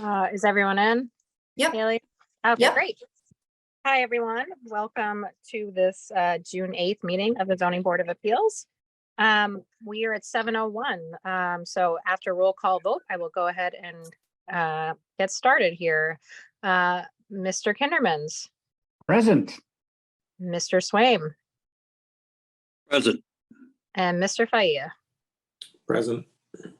Uh, Is everyone in? Yep. Haley? Okay, Yep. great. Hi, everyone. Welcome to this uh, June 8th meeting of the Zoning Board of Appeals. Um, We are at 7:01. Um, So after roll call vote, I will go ahead and uh, get started here. Uh, Mr. Kindermans, Present. Mr. Swaim, Present. and Mr. Faya. Present.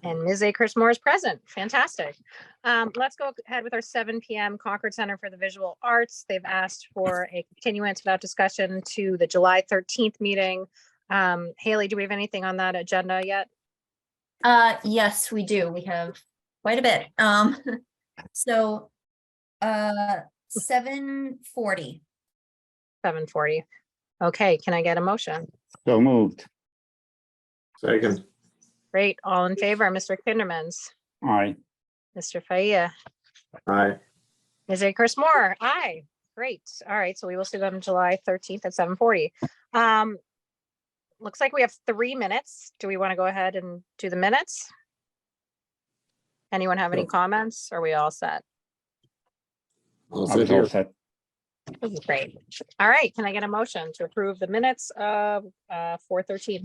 And Ms. Akers Moore is present. Fantastic. Um, let's go ahead with our seven PM Concord Center for the Visual Arts. They've asked for a continuance without discussion to the July thirteenth meeting. Um, Haley, do we have anything on that agenda yet? Uh, yes, we do. We have quite a bit. Um, so, uh, seven forty. Seven forty. Okay, can I get a motion? So moved. Second. Great. All in favor, Mr. Kindermans, Aye. Mr. Faya, Aye. Ms. Akers Moore. Aye. Great. All right, so we will see them July thirteenth at seven forty. Um, looks like we have three minutes. Do we want to go ahead and do the minutes? Anyone have any Sure. comments? Are we all set? I'll I sit was all here. set. This is Great. All right, can I get a motion to approve the minutes of uh four thirteen?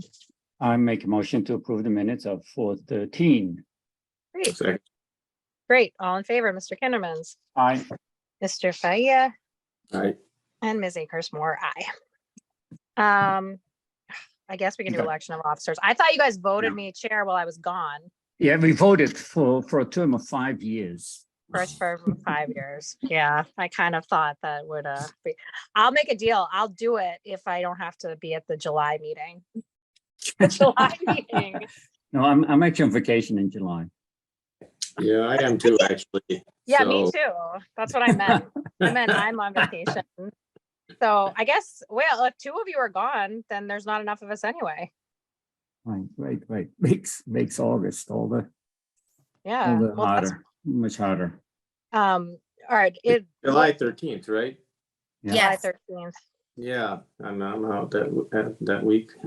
I make a motion to approve the minutes of four thirteen. Great, Second. great. All in favor, Mr. Kindermans, Aye. Mr. Faya, Aye. and Ms. Akers Moore, aye. Um, I guess we can do Okay. election of officers. I thought you guys voted No. me chair while I was gone Yeah, we voted for, for a term of five years. first for five years. Yeah, I kind of thought that would uh be, I'll make a deal. I'll do it if I don't have to be at the July meeting. The July meeting. No, I'm, I'm actually on vacation in July. Yeah, I am too, actually. Yeah, me So- too. That's what I meant. I meant I'm on vacation. So I guess, well, if two of you are gone, then there's not enough of us anyway. Right, right, right. Makes, makes August all the, all Yeah. the well, that's- harder, much harder. Um, all right, it, July thirteenth, right? Yeah. July Yes, thirteenth. Yeah, I'm, I'm out that, w- that, that week.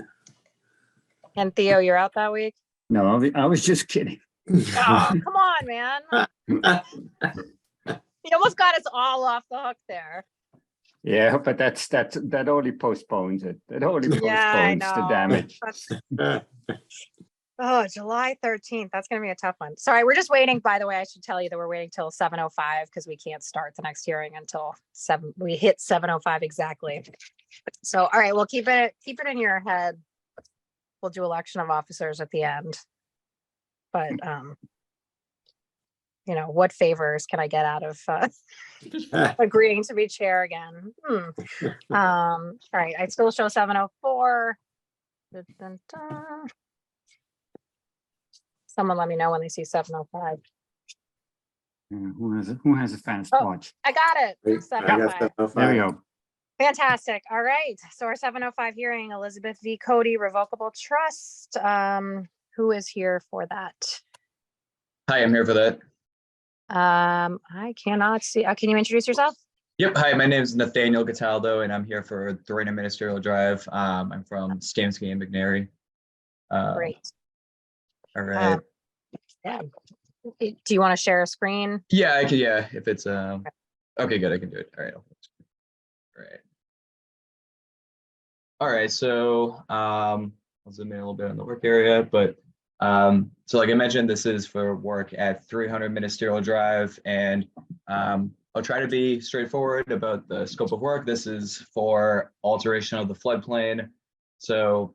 And Theo, you're out that week? No, I was- I was just kidding. Ah, Oh, come on, man. You almost got us all off the hook there. Yeah, but that's, that's, that only postpones it. That only Yeah, I postpones the know. damage. That's- Uh, Oh, July thirteenth. That's gonna be a tough one. Sorry, we're just waiting. By the way, I should tell you that we're waiting till seven oh five because we can't start the next hearing until seven, we hit seven oh five exactly. So, all right, we'll keep it, keep it in your head. We'll do election of officers at the end. But, um, you know, what favors can I get out of, uh, agreeing to be chair again? Hmm. Um, all right, I still show seven oh four. Someone let me know when they see seven oh five. Yeah, Who has, a- who has a fast Oh. watch? I got it. I got 7:05. that off. There we go. Fantastic. All right. So our seven oh five hearing, Elizabeth V. Cody Revocable Trust. Um, who is here for that? Hi, I'm here for that. Um, I cannot see. uh, Can you introduce yourself? Yep. Hi, my name is Nathaniel Cataldo, and I'm here for Thorina Ministerial Drive. Um, I'm from Stamsky and McNary. Uh, Great. All right. Um, Yeah. Do you want to share a screen? Yeah, I can. Yeah, if it's um. Okay, good. I can do it. All right. All right. All right. So um, I'll zoom in a little bit on the work area, but um, so like I mentioned, this is for work at 300 Ministerial Drive, and um, I'll try to be straightforward about the scope of work. This is for alteration of the floodplain. So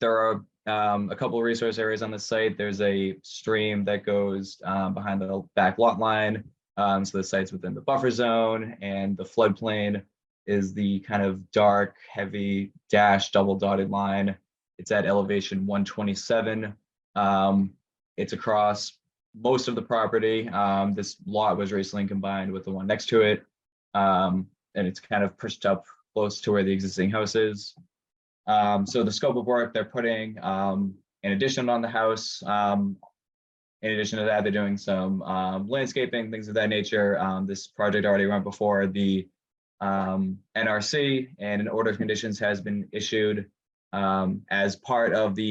there are um, a couple of resource areas on the site. There's a stream that goes um, behind the back lot line. Um, so the site's within the buffer zone and the floodplain is the kind of dark, heavy dash double dotted line. It's at elevation 127. Um, it's across most of the property. Um, this lot was recently combined with the one next to it. Um, and it's kind of pushed up close to where the existing house is. Um, so the scope of work they're putting, um, in addition on the house, um, in addition to that, they're doing some, um, landscaping, things of that nature. Um, this project already went before the, um, NRC and an order of conditions has been issued, um, as part of the